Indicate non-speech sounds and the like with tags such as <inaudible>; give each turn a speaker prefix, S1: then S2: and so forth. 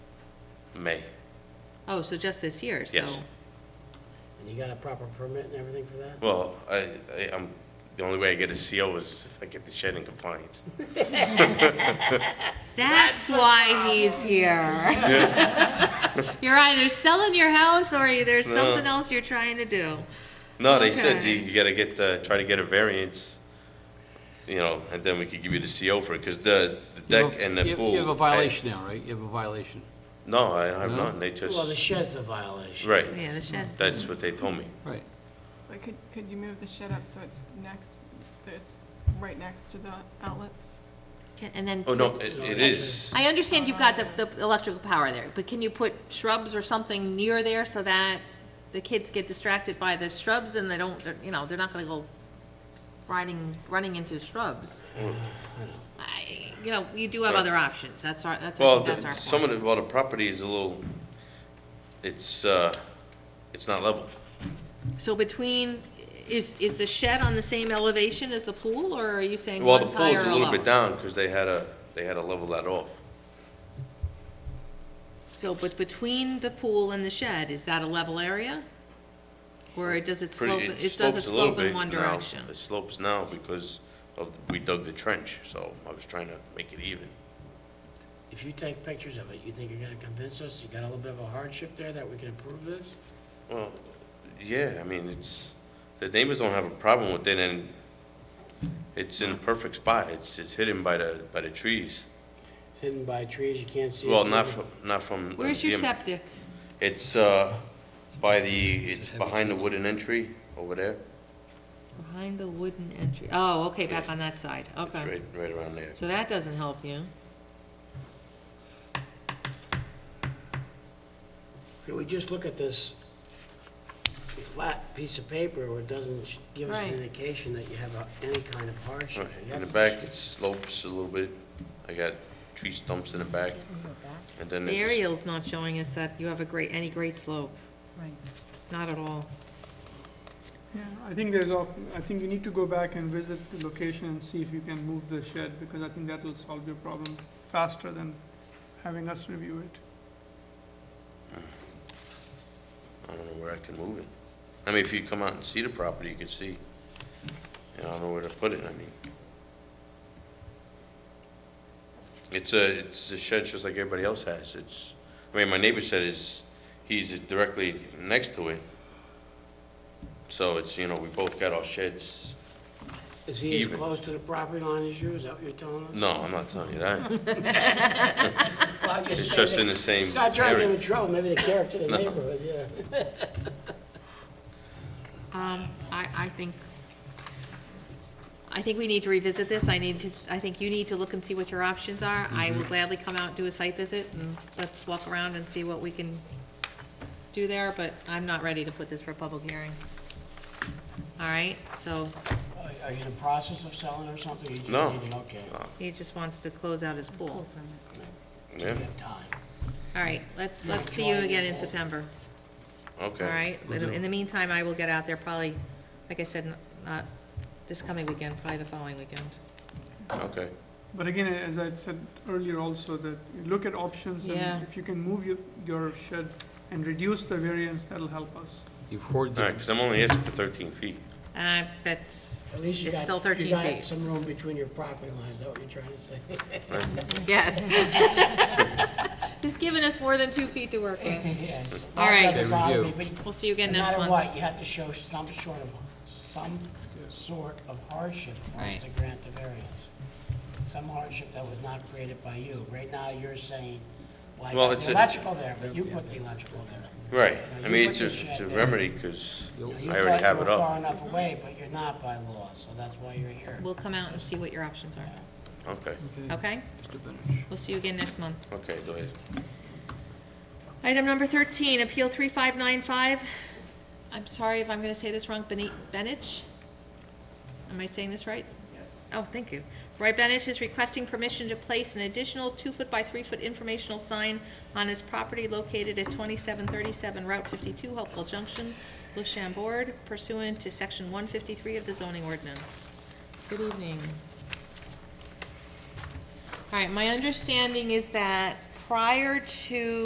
S1: May.
S2: Oh, so just this year, so.
S1: Yes.
S3: And you got a proper permit and everything for that?
S1: Well, I, I, I'm, the only way I get a CO is if I get the shed in compliance.
S2: That's why he's here. <laughs> You're either selling your house or there's
S1: No.
S2: something else you're trying to do.
S1: No, they said you,
S2: Okay.
S1: you gotta get, the try to get a variance, you know, and then we could give you the CO for it, cause the, the deck and
S4: You
S1: the
S4: have-
S1: pool.
S4: You have a
S1: I-
S4: violation now, right? You have a violation,
S1: No, I have
S4: No?
S1: not, they
S3: Well, the
S1: just,
S3: shed's a violation.
S1: right,
S2: Yeah, the shed.
S1: that's what they told me.
S4: right.
S5: Like, could, could you move the shed up so it's next, it's right next to the outlets?
S2: Can- And then.
S1: Oh, no,
S2: put-
S1: it, it is,
S2: I understand you've got the, the electrical power there, but can you put shrubs or something near there so that the kids get distracted by the shrubs and they don't, they're, you know, they're not gonna go riding, running into shrubs? I, you know, you do have
S1: Mm. Right.
S2: other options, that's our, that's, I
S1: well,
S2: think that's
S1: the-
S2: our
S1: some
S2: point.
S1: of the, well, the property is a little, it's, uh, it's not level.
S2: So between, is, is the shed on the same elevation as the pool, or are you saying
S1: Well, the
S2: one's
S1: pool's
S2: higher
S1: a
S2: or
S1: little bit
S2: lower?
S1: down, cause they had a, they had to level that off.
S2: So, but between the pool and the shed, is that a level area? Or does it slope,
S1: Pretty-
S2: it does it
S1: slopes a little
S2: slope in
S1: bit
S2: one
S1: now.
S2: direction?
S1: It slopes now because of, the- we dug the trench, so I was trying to make it even.
S3: If you take pictures of it, you think you're gonna convince us you got a little bit of a hardship there that we can approve this?
S1: Well, yeah, I mean, it's, the neighbors don't have a problem with it, and it's in a perfect spot. It's, it's hidden by the, by the trees.
S3: It's hidden by trees, you can't see it.
S1: Well, not from, not from.
S2: Where's your
S1: yeah,
S2: septic?
S1: It's, uh, by the, it's behind the wooden entry over there.
S2: Behind the wooden entry. Oh, okay, back on that side,
S1: It's
S2: okay.
S1: right, right around there.
S2: So that doesn't help you.
S3: Can we just look at this flat piece of paper where it doesn't sh- give us
S2: Right.
S3: an indication that you have a- any kind of hardship? I
S1: In the
S3: guess-
S1: back, it slopes a little bit. I got tree stumps in the back, and then
S2: The
S1: there's this
S2: aerial's not showing us that you have a great, any great slope.
S6: Right.
S2: Not at all.
S7: Yeah, I think there's, op- I think you need to go back and visit the location and see if you can move the shed, because I think that will solve your problem faster than having us review it.
S1: I don't know where I can move it. I mean, if you come out and see the property, you can see, and I don't know where to put it, I mean. It's a, it's a shed just like everybody else has, it's, I mean, my neighbor said is, he's directly next to it. So it's, you know, we both got our sheds,
S3: Is he as
S1: even.
S3: close to the property line as you, is that what you're telling us?
S1: no, I'm not telling you
S3: <laughs>
S1: that,
S3: Well, I just
S1: Mm. it's
S3: said
S1: just
S3: that-
S1: in the same
S3: Not trying to give him
S1: area.
S3: trouble, maybe the character of the neighborhood, yeah.
S2: Um, I, I think, I think we need to revisit this. I need to, I think you need to look and see what your options are. I will gladly come out, and do a site visit, and let's walk around and see what we can do there, but I'm not ready to put this for a public hearing. All right, so
S3: Are- Are you in the process of selling or something? You just
S1: No.
S3: need to- Okay,
S2: he just wants to close out his pool.
S1: Yeah,
S3: you have time.
S2: All right, let's, let's see you again in September,
S1: okay.
S2: all right? But In the meantime, I will get out there probably, like I said, not this coming weekend, probably the following weekend.
S1: Okay,
S7: But again, as I said earlier also, that you look at options,
S2: Yeah.
S7: and if you can move your, your shed and reduce the variance, that'll help us.
S4: You've hoarded,
S1: all right,
S4: the-
S1: because I'm only asking for thirteen feet.
S2: Uh, that's,
S3: At least you
S2: it's
S3: got-
S2: still thirteen
S3: You got
S2: feet.
S3: some room between your property lines, is that what you're trying to
S2: <laughs>
S3: say?
S2: Yes.
S3: <laughs>
S2: <laughs> He's given us more than two feet to work with.
S3: Yes.
S2: All right.
S3: That doesn't bother me,
S4: Okay,
S3: but
S2: We'll see you again
S3: No
S2: next
S3: matter
S2: month.
S3: what, you have to show some sort of, some sort of hardship for
S2: Right.
S3: us to grant the variance. Some hardship that was not created by you. Right now, you're saying, why
S1: Well,
S3: put
S1: it's
S3: the
S1: a-
S3: electrical there, but you put the electrical there.
S1: Right, I
S3: Now, you
S1: mean,
S3: put
S1: it's a,
S3: your
S1: it's a
S3: shed there.
S1: remedy, because
S3: Now, you
S1: I already
S3: thought
S1: have
S3: you
S1: it
S3: were
S1: up.
S3: Far enough away, but you're not by law, so that's why you're here.
S2: We'll come out and see what your options are,
S1: Okay,
S3: Mm.
S2: okay?
S4: Mr. Benedict.
S2: We'll see you again next month.
S1: okay, do it.
S2: Item number thirteen, Appeal three five nine five. I'm sorry if I'm gonna say this wrong, Bene Benich? Am I saying this right? Yes. Oh, thank you. Roy Benich is requesting permission to place an additional two-foot by three-foot informational sign on his property located at twenty-seven thirty-seven Route fifty-two, Hopewell Junction, Lushambord, pursuant to section one fifty-three of the zoning ordinance. Good evening. All right, my understanding is that prior to